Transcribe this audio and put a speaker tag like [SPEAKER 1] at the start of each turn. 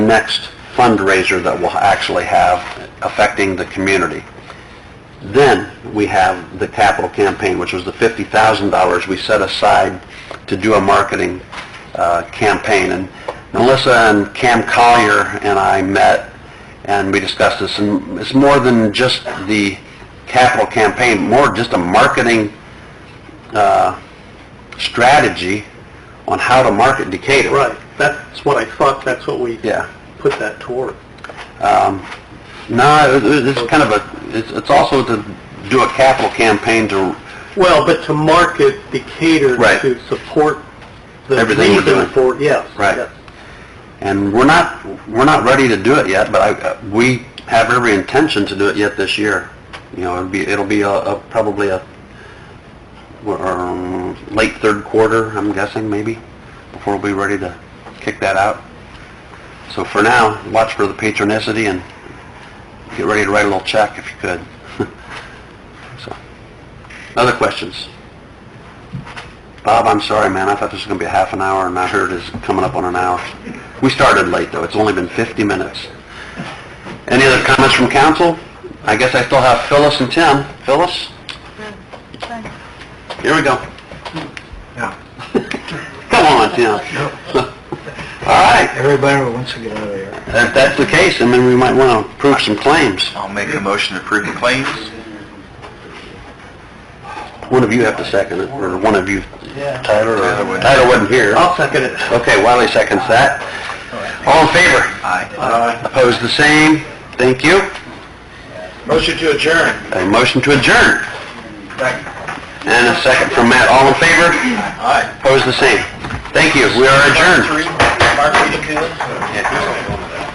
[SPEAKER 1] next fundraiser that we'll actually have affecting the community. Then we have the capital campaign, which was the $50,000 we set aside to do a marketing uh, campaign. And Melissa and Cam Collier and I met, and we discussed this, and it's more than just the capital campaign, more just a marketing uh, strategy on how to market Decatur.
[SPEAKER 2] Right, that's what I thought, that's what we
[SPEAKER 1] Yeah.
[SPEAKER 2] put that toward.
[SPEAKER 1] No, it- it- it's kind of a, it's- it's also to do a capital campaign to,
[SPEAKER 2] Well, but to market Decatur
[SPEAKER 1] Right.
[SPEAKER 2] to support the
[SPEAKER 1] Everything we're
[SPEAKER 2] reason
[SPEAKER 1] doing.
[SPEAKER 2] for, yes.
[SPEAKER 1] Right.
[SPEAKER 2] yes.
[SPEAKER 1] and we're not, we're not ready to do it yet, but I, we have every intention to do it yet this year. You know, it'll be, it'll be a, a- probably a, um, late third quarter, I'm guessing, maybe, before we'll be ready to kick that out. So for now, watch for the patronicity and get ready to write a little check if you could. So, Other questions? Bob, I'm sorry, man, I thought this was gonna be a half an hour, and I heard it's coming up on an hour. We started late, though, it's only been 50 minutes. Any other comments from council? I guess I still have Phyllis and Tim. Phyllis? Here we go. Come on, Tim. All right,
[SPEAKER 3] Everybody wants to get out of there.
[SPEAKER 1] if that's the case, then we might wanna approve some claims.
[SPEAKER 3] I'll make a motion to approve the claims.
[SPEAKER 1] One of you have to second it, or one of you,
[SPEAKER 3] Yeah.
[SPEAKER 1] Tyler,
[SPEAKER 3] Tyler
[SPEAKER 1] or,
[SPEAKER 3] would.
[SPEAKER 1] Tyler wasn't here.
[SPEAKER 2] I'll second it.
[SPEAKER 1] Okay, Wiley seconds that. All in favor? Aye. Opposed, Uh, the same? Thank you.
[SPEAKER 3] Motion to adjourn.
[SPEAKER 1] A motion to adjourn, and a second from Matt. All in favor?
[SPEAKER 3] Aye.
[SPEAKER 1] Opposed, the same? Thank you, we are adjourned.
[SPEAKER 3] Mark Peters.